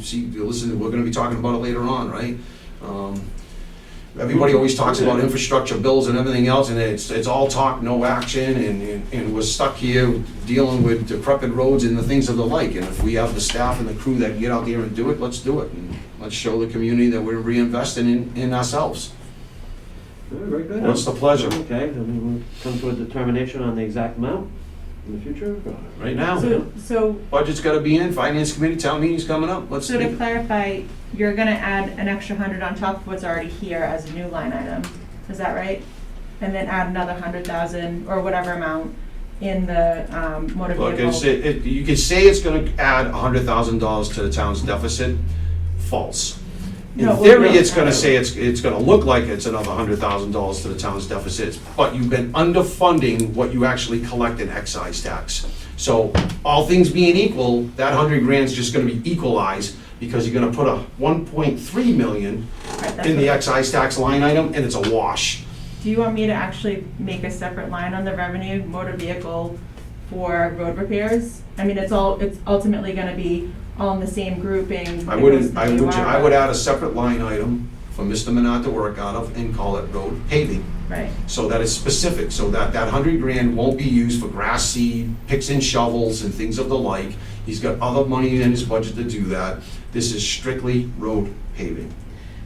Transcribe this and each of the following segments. see, you listen, we're gonna be talking about it later on, right? Um, Everybody always talks about infrastructure bills and everything else, and it's, it's all talk, no action, and, and- and we're stuck here dealing with decrepit roads and the things of the like. And if we have the staff and the crew that can get out there and do it, let's do it. And Let's show the community that we're reinvesting in, in ourselves. Yeah, Very good. What's the pleasure? Okay, then we'll come to a determination on the exact amount in the future. or- Right now. So, so, Budget's gotta be in, finance committee, town meeting's coming up, let's. so to do it. clarify, you're gonna add an extra hundred on top of what's already here as a new line item, is that right? And then add another hundred thousand or whatever amount in the, um, motor Look, it's, vehicle. it, it- you could say it's gonna add hundred thousand dollars to the town's deficit, false. In No, well, theory, no, it's I know. gonna say it's, it's gonna look like it's another hundred thousand dollars to the town's deficit, but you've been underfunding what you actually collect in excise tax. So, all things being equal, that hundred grand's just gonna be equalized, because you're gonna put a one point three million Right, that's in the what- excise tax line item, and it's a wash. Do you want me to actually make a separate line on the revenue motor vehicle for road repairs? I mean, it's all, it's ultimately gonna be all in the same grouping. I that goes wouldn't, in I the would, I UR. would add a separate line item for Mr. Minot to work out of and call it road paving. Right, So that it's specific, so that that hundred grand won't be used for grass seed, picks and shovels and things of the like. He's got other money in his budget to do that. This is strictly road paving.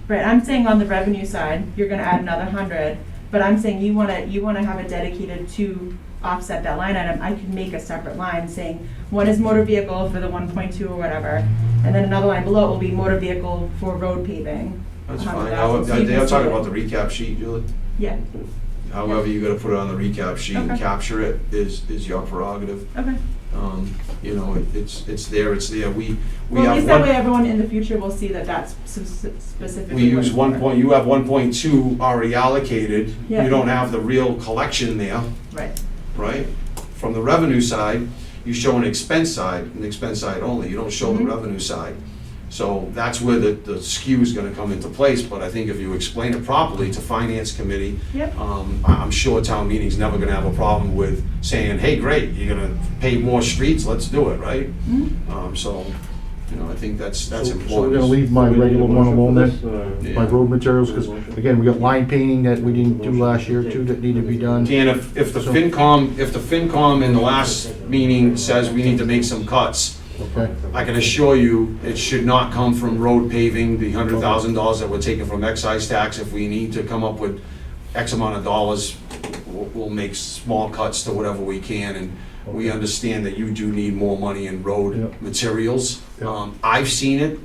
right, I'm saying on the revenue side, you're gonna add another hundred, but I'm saying you wanna, you wanna have it dedicated to offset that line item, I could make a separate line saying, one is motor vehicle for the one point two or whatever, and then another line below will be motor vehicle for road paving. That's fine. Now, 100,000. So you They can are see talking it. about the recap sheet, Julie. Yeah, However, you gotta put it on the recap sheet and Okay. capture it is, is your prerogative. okay. Um, You know, it- it's, it's there, it's there. We, we have one. Well, at least that way everyone in the future will see that that's s- s- specifically. We what use it's one for. point, you have one point two already allocated, Yeah. you don't have the real collection there, Right, right? From the revenue side, you show an expense side, an expense side only, you don't show the Mhm. revenue side. So that's where the, the skew is gonna come into place, but I think if you explain it properly to finance committee, yep, um, I- I'm sure town meeting's never gonna have a problem with saying, hey, great, you're gonna pave more streets, let's do it, right? Mhm. Um, so, you know, I think that's, that's So- so we're important. gonna We're gonna leave my Do we need a regular one motion for alone this, Yeah. uh, or- my road materials, because again, we got line painting that we didn't do last year too, that need to be done. Dan, if, if the FinCom, if the FinCom in the last meeting says we need to make some cuts, Okay, I can assure you, it should not come from road paving, the hundred thousand dollars that we're taking from excise tax. If we need to come up with X amount of dollars, we'll, we'll make small cuts to whatever we can. And we understand that you do need more money in road Yep. materials. Yep. Um, I've seen it.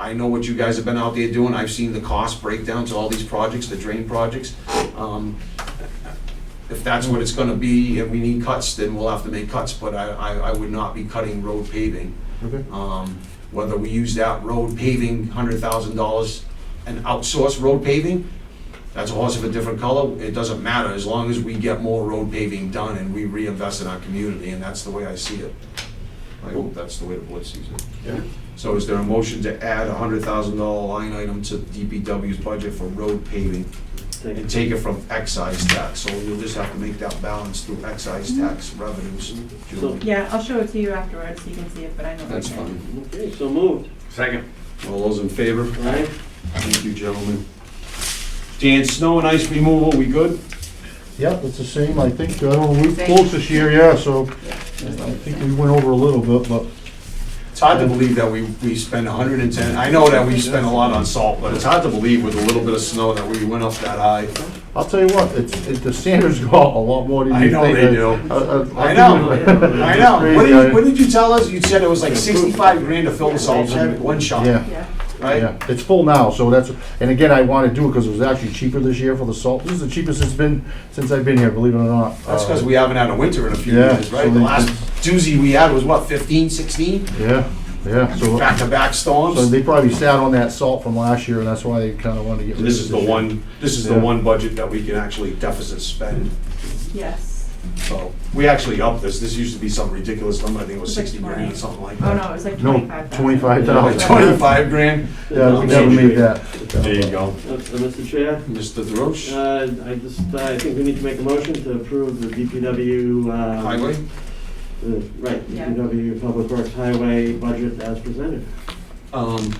I know what you guys have been out there doing. I've seen the cost breakdowns of all these projects, the drain projects. Um, if that's what it's gonna be, and we need cuts, then we'll have to make cuts, but I, I, I would not be cutting road paving. okay. Um, Whether we use that road paving, hundred thousand dollars, and outsource road paving, that's a horse of a different color, it doesn't matter, as long as we get more road paving done and we reinvest in our community, and that's the way I see it. I hope that's the way the board sees it. Yeah. So is there a motion to add a hundred thousand dollar line item to DPW's budget for road paving? Take and it. take it from excise tax, so you'll just have to make that balance through excise tax revenues. Julie. yeah, I'll show it to you afterwards, so you can see it, but I know. what That's it is. fine. Okay, so moved, All those in favor? all right? Thank you, gentlemen. Dan, snow and ice removal, we good? Yep, it's the same, I think, I don't know, we closed this year, yeah, so I think we went over a little bit, but It's hard to believe that we, we spent hundred and ten, I know that we spent a lot on salt, but it's hard to believe with a little bit of snow that we went up that high. I'll tell you what, it's, it- the standards go up a lot more than I you know think. Uh, they do. I know, I know. What did you, what did you tell us? You said it was like sixty-five grand to fill the salt shed, one shot, uh, Yeah. Yeah, right? Yeah, it's full now, so that's, and again, I want to do it because it was actually cheaper this year for the salt. This is the cheapest it's been since I've been here, believe it or not. That's because Uh, we haven't had a winter in a few Yeah, years, right? so The they- last doozy we had was what, fifteen, sixteen? Yeah, yeah, so, Back-to-back storms? so they probably sat on that salt from last year and that's why they kind of wanted to get rid of it. This is the year. one, this is the Yeah. one budget that we can actually deficit spend. yes. So, we actually upped this, this used to be some ridiculous number, I think it was It's like sixty grand or 20. something like Oh, that. no, it was like No, twenty-five thousand. twenty-five Like dollars. twenty-five grand? Yeah, we never made that. There you go. Uh, uh, Mr. Chair, Mr. Deroche, uh, I just, I think we need to make a motion to approve the DPW. uh, highway? uh, Right, Yeah. DPW Public Works Highway budget as presented. Um,